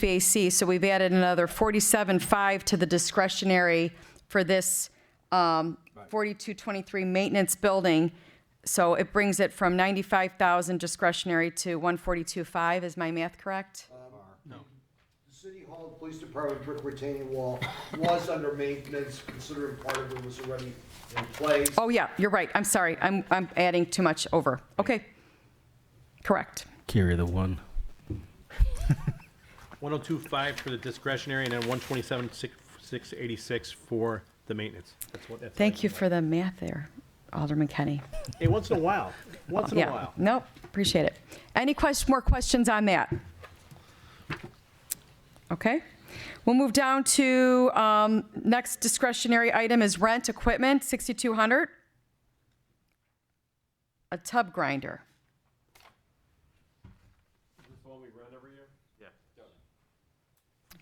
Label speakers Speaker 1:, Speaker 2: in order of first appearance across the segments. Speaker 1: HVAC, so we've added another 47.5 to the discretionary for this um, 4223 maintenance building. So it brings it from 95,000 discretionary to 142.5, is my math correct?
Speaker 2: City Hall, Police Department brick retaining wall was under maintenance, considering part of it was already in place.
Speaker 1: Oh, yeah, you're right, I'm sorry, I'm, I'm adding too much over. Okay, correct.
Speaker 3: Carry the one.
Speaker 4: 1025 for the discretionary and then 127,686 for the maintenance. That's what, that's.
Speaker 1: Thank you for the math there, Alderman Kenny.
Speaker 4: Hey, once in a while, once in a
Speaker 1: Yeah.
Speaker 4: while.
Speaker 1: Nope, appreciate it. Any quest, more questions on that? Okay. We'll move down to, um, next discretionary item is rent equipment, 6,200. A tub grinder.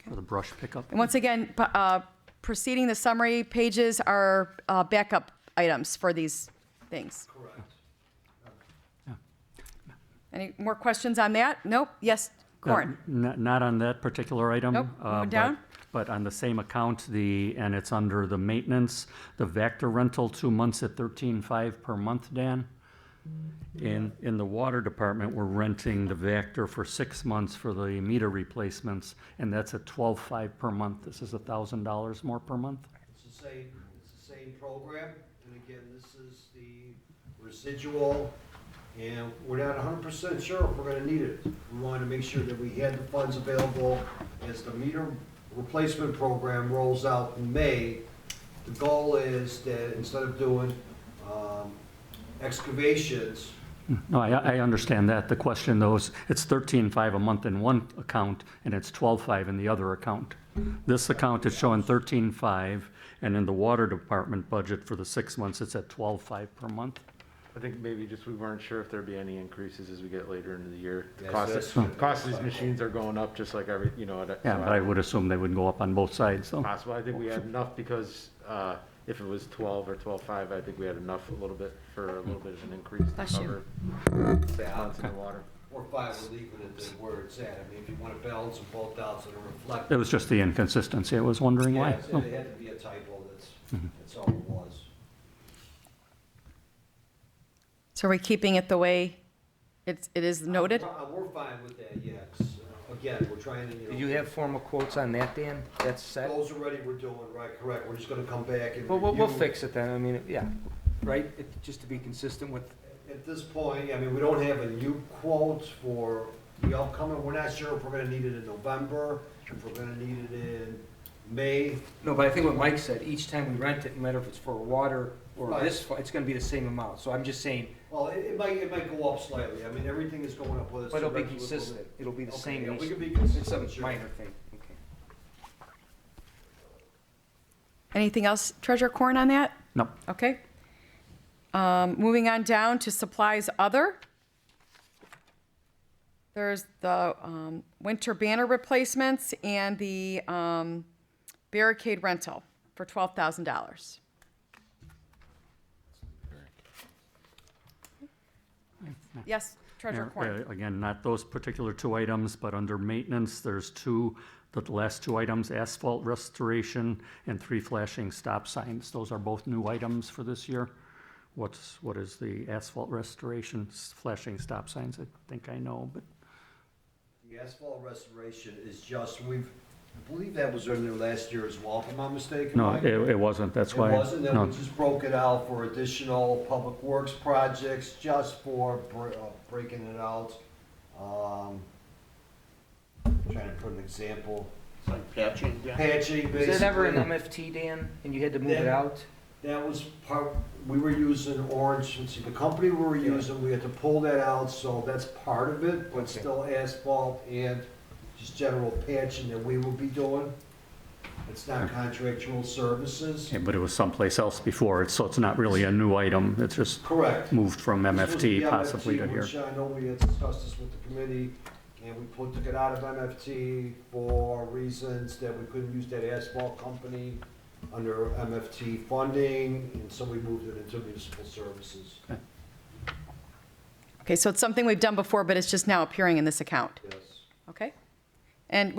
Speaker 5: For the brush pickup?
Speaker 1: And once again, p- uh, preceding the summary pages are uh, backup items for these things. Correct. Any more questions on that? Nope. Yes, Corin.
Speaker 5: Not, not on that particular item.
Speaker 1: Nope,
Speaker 5: uh,
Speaker 1: moving
Speaker 5: but-
Speaker 1: down.
Speaker 5: But on the same account, the, and it's under the maintenance, the Vector rental, two months at thirteen-five per month, Dan. In, in the water department, we're renting the Vector for six months for the meter replacements, and that's at twelve-five per month. This is a thousand dollars more per month.
Speaker 2: It's the same, it's the same program, and again, this is the residual, and we're not hundred percent sure if we're gonna need it. We wanted to make sure that we had the funds available as the meter replacement program rolls out in May. The goal is that instead of doing, um, excavations,
Speaker 5: No, I, I understand that. The question though is, it's thirteen-five a month in one account and it's twelve-five in the other account. This account is showing thirteen-five and in the water department budget for the six months, it's at twelve-five per month.
Speaker 6: I think maybe just we weren't sure if there'd be any increases as we get later into the year. The
Speaker 2: Yes,
Speaker 6: cost,
Speaker 2: that's-
Speaker 6: cost of these machines are going up just like every, you know. and, uh,
Speaker 5: Yeah,
Speaker 6: so
Speaker 5: but I would assume they would go up on both sides, so.
Speaker 6: Possible, I think we had enough because, uh, if it was twelve or twelve-five, I think we had enough a little bit for a little bit of an increase to
Speaker 1: Bless you.
Speaker 6: cover amounts in the water.
Speaker 2: or five, we're leaving it at where it's at. I mean, if you wanna balance them both out so they're reflective.
Speaker 5: It was just the inconsistency. I was wondering
Speaker 2: Yeah,
Speaker 5: why. Oh.
Speaker 2: it's-
Speaker 5: so.
Speaker 2: it had to be a typo, that's, that's all it was.
Speaker 1: So are we keeping it the way it's, it is noted?
Speaker 2: Uh, We're fine with that, yes. Uh, Again, we're trying to,
Speaker 7: Do
Speaker 2: you
Speaker 7: you
Speaker 2: know,
Speaker 7: have formal quotes on that, Dan? That's set?
Speaker 2: those already we're doing, right, correct, we're just gonna come back and.
Speaker 7: Well, we'll, we'll
Speaker 2: review.
Speaker 7: fix it then, I mean, yeah, right? It- Just to be consistent with,
Speaker 2: At this point, I mean, we don't have a new quote for the upcoming, we're not sure if we're gonna need it in November, if we're gonna need it in May.
Speaker 7: no, but I think what Mike said, each time we rent it, no matter if it's for water or
Speaker 2: Right.
Speaker 7: this, fu- it's gonna be the same amount. So I'm just saying,
Speaker 2: Well, it, it might, it might go up slightly, I mean, everything is going up, whether it's.
Speaker 7: but it'll be
Speaker 2: direct-
Speaker 7: consistent, it'll be the
Speaker 2: Okay,
Speaker 7: same.
Speaker 2: yeah, we
Speaker 7: each-
Speaker 2: can be consistent,
Speaker 7: It's a
Speaker 2: sure.
Speaker 7: minor thing, okay.
Speaker 1: Anything else, Treasurer Corn, on that?
Speaker 5: No,
Speaker 1: Okay. Um, Moving on down to supplies other. There's the um, winter banner replacements and the um, barricade rental for $12,000. Yes, Treasurer Corn.
Speaker 5: Uh, Again, not those particular two items, but under maintenance, there's two, the last two items, asphalt restoration and three flashing stop signs. Those are both new items for this year. What's, what is the asphalt restoration, s- flashing stop signs? I think I know, but
Speaker 2: The asphalt restoration is just, we've, I believe that was in there last year as well, if I'm not mistaken.
Speaker 5: no,
Speaker 2: Mike?
Speaker 5: it, it wasn't, that's
Speaker 2: It
Speaker 5: why.
Speaker 2: wasn't, then
Speaker 5: no.
Speaker 2: we just broke it out for additional public works projects, just for br- uh, breaking it out. Um, Trying to put an example,
Speaker 6: Like patching down?
Speaker 2: patching
Speaker 7: Is it ever an
Speaker 2: basically,
Speaker 7: MFT, Dan, and you had to move it
Speaker 2: Yeah.
Speaker 7: out?
Speaker 2: that was part, we were using Orange, let's see, the company we were using, we had to pull that out, so that's part of it, but still asphalt and just general patching that we will be doing. It's not contractual services,
Speaker 5: Yeah, But it was someplace else before, it's- so it's not really a new item. It's just
Speaker 2: correct.
Speaker 5: moved from
Speaker 2: Supposed to be
Speaker 5: MFT possibly to
Speaker 2: MFT,
Speaker 5: here.
Speaker 2: which I know we had discussed this with the committee, and we put, took it out of MFT for reasons that we couldn't use that asphalt company under MFT funding, and so we moved it into municipal services,
Speaker 1: Okay, so it's something we've done before, but it's just now appearing in this account,
Speaker 2: yes.
Speaker 1: okay? And